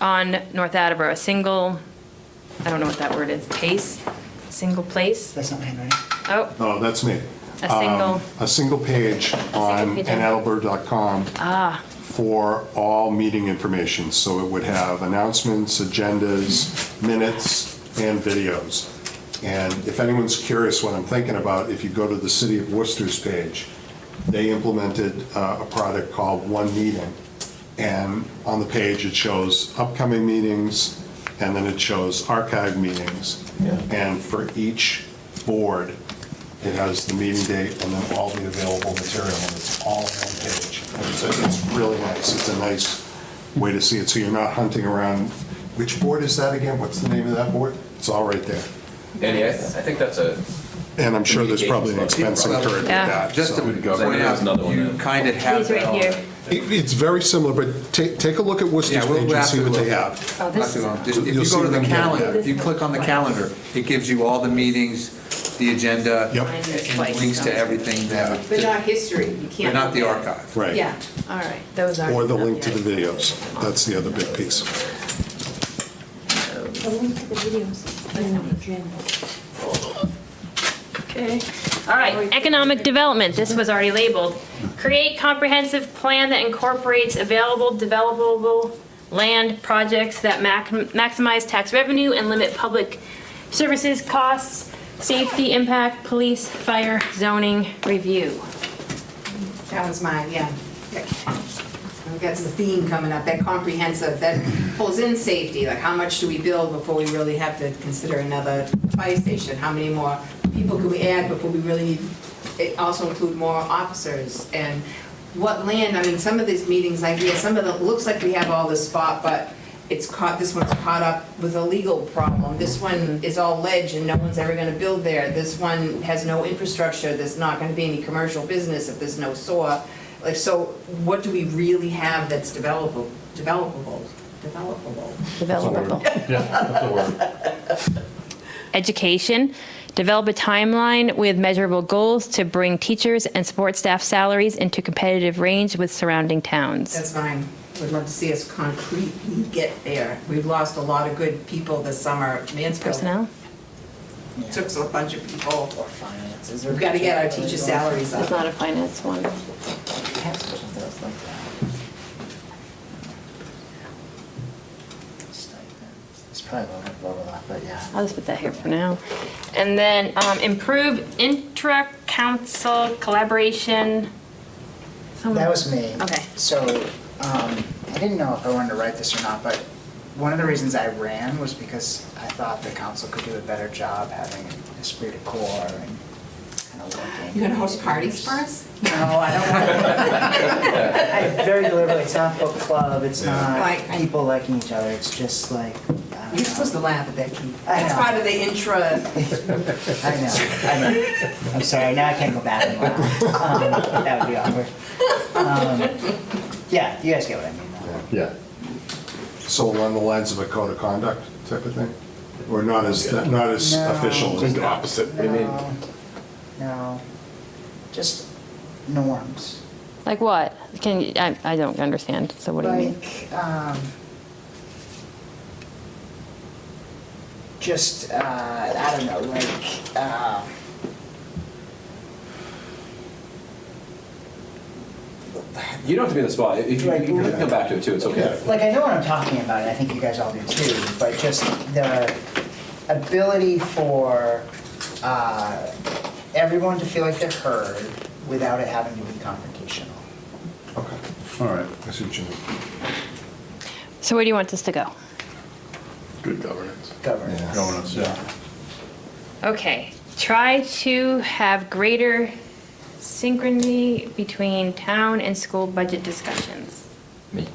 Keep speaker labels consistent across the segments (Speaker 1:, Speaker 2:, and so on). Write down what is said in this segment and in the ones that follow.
Speaker 1: on North Attleboro, a single, I don't know what that word is, pace? Single place?
Speaker 2: That's not my handwriting.
Speaker 1: Oh,
Speaker 3: No, that's me.
Speaker 1: a
Speaker 3: Um,
Speaker 1: single,
Speaker 3: A single page on
Speaker 1: page.
Speaker 3: annalber.com for all meeting information. So it would have announcements, agendas, minutes, and videos. And if anyone's curious what I'm thinking about, if you go to the City of Worcester's page, they implemented uh, a product called One Meeting. And on the page, it shows upcoming meetings, and then it shows archive meetings. And for each board, it has the meeting date and then all the available material, and it's all on one page. And It's it's really nice, it's a nice way to see it, so you're not hunting around, which board is that again? What's the name of that board? It's all right there.
Speaker 4: Andy, I, I think that's a,
Speaker 3: And I'm sure there's probably an expense incurred with
Speaker 1: Yeah.
Speaker 3: that.
Speaker 5: Just to
Speaker 3: so.
Speaker 5: point
Speaker 4: go. There's
Speaker 5: out,
Speaker 4: another one
Speaker 5: you
Speaker 4: there.
Speaker 5: kind of have uh,
Speaker 1: he's
Speaker 5: that
Speaker 1: right
Speaker 5: all.
Speaker 1: here.
Speaker 3: It- It's very similar, but take, take a look at Worcester's
Speaker 5: Yeah, we'll-
Speaker 3: page
Speaker 5: we'll
Speaker 3: and
Speaker 5: have
Speaker 3: see
Speaker 5: to
Speaker 3: what they
Speaker 5: look.
Speaker 3: have.
Speaker 1: oh,
Speaker 5: Not
Speaker 1: this
Speaker 5: too
Speaker 1: is,
Speaker 5: long. Just- If
Speaker 3: You'll
Speaker 5: you go
Speaker 3: see
Speaker 5: to the
Speaker 3: them down there.
Speaker 5: calendar, if you click on the calendar, it gives you all the meetings, the agenda,
Speaker 3: Yep.
Speaker 1: Mine is
Speaker 5: and
Speaker 1: twice,
Speaker 5: links to
Speaker 1: so.
Speaker 5: everything that,
Speaker 6: But not history, you can't.
Speaker 5: but not the
Speaker 6: look at-
Speaker 5: archive.
Speaker 3: Right.
Speaker 6: Yeah, all right.
Speaker 1: those are.
Speaker 3: Or the link to the videos. That's the other big piece.
Speaker 7: The link to the videos is in the agenda.
Speaker 1: Okay. All right, economic development, this was already labeled. Create comprehensive plan that incorporates available developable land projects that mac- maximize tax revenue and limit public services costs, safety impact, police, fire, zoning review.
Speaker 6: That was mine, yeah. That's the theme coming up, that comprehensive, that pulls in safety, like how much do we build before we really have to consider another fire station? How many more people can we add before we really need, it also include more officers? And what land, I mean, some of these meetings, like, yeah, some of the, looks like we have all this spot, but it's caught, this one's caught up with a legal problem. This
Speaker 2: Mm-hmm.
Speaker 6: one is all ledge and no one's ever gonna build there. This one has no infrastructure, there's not gonna be any commercial business if there's no SOAR. Like, so what do we really have that's developable, developable, developable?
Speaker 1: Developable. Education, develop a timeline with measurable goals to bring teachers and support staff salaries into competitive range with surrounding towns.
Speaker 6: That's fine. Would love to see us concretely get there. We've lost a lot of good people this summer. Mansfield
Speaker 1: Personnel?
Speaker 6: took a bunch of people.
Speaker 2: finances.
Speaker 6: We've got to get our teacher salaries
Speaker 1: It's
Speaker 6: up.
Speaker 1: not a finance one.
Speaker 2: We have something else like that. Stipends. It's probably a little overlap, but yeah.
Speaker 1: I'll just put that here for now. And then um, improve intra-council collaboration. Someone-
Speaker 2: That was me.
Speaker 1: Okay.
Speaker 2: So, um, I didn't know if I wanted to write this or not, but one of the reasons I ran was because I thought the council could do a better job having a esprit de corps and kind of working.
Speaker 6: You gonna host parties for us?
Speaker 2: No, I don't want to. I very deliberately, it's not book club, it's not
Speaker 6: Like-
Speaker 2: people liking each other, it's just like, I
Speaker 6: You're
Speaker 2: don't know.
Speaker 6: supposed to laugh at that, Keith.
Speaker 2: I
Speaker 6: That's
Speaker 2: know.
Speaker 6: part of the intra.
Speaker 2: I know, I know. I'm sorry, now I can't go back and laugh. Um, That would be awkward. Um, Yeah, you guys get what I mean. though.
Speaker 3: Yeah. So along the lines of a code of conduct type of thing? Or not as, not as
Speaker 2: No.
Speaker 3: official?
Speaker 2: Just
Speaker 3: the opposite.
Speaker 2: No, no, just norms.
Speaker 1: Like what? Can, you- I, I don't understand, so what do you mean?
Speaker 2: Like, um, just, uh, I don't know, like, um,
Speaker 4: you don't have to be in the spot, if you, you can come back to it too, it's okay.
Speaker 2: like I know what I'm talking about, and I think you guys all do too, but just the ability for uh, everyone to feel like they're heard without it having to be confrontational.
Speaker 3: Okay, all right, I see what you mean.
Speaker 1: So where do you want this to go?
Speaker 3: Good governance.
Speaker 2: Governance.
Speaker 3: Yeah. Governance, yeah.
Speaker 1: Okay, try to have greater synchrony between town and school budget discussions.
Speaker 4: Me.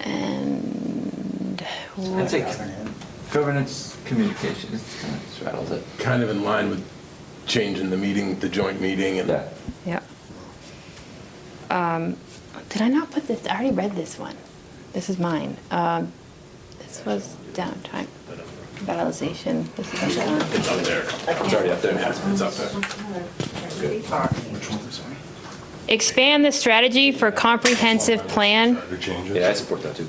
Speaker 1: And.
Speaker 4: I'd say
Speaker 2: Governance.
Speaker 4: governance communication, it kind of just rattles it.
Speaker 8: kind of in line with changing the meeting, the joint meeting and.
Speaker 4: Yeah.
Speaker 1: Yep. Um, Did I not put this, I already read this one. This is mine. Um, This was downtime, revitalization. This is downtime.
Speaker 8: It's up there.
Speaker 4: It's already up there.
Speaker 8: It's up there.
Speaker 1: Expand the strategy for comprehensive plan
Speaker 3: Changes.
Speaker 4: Yeah, I support that too.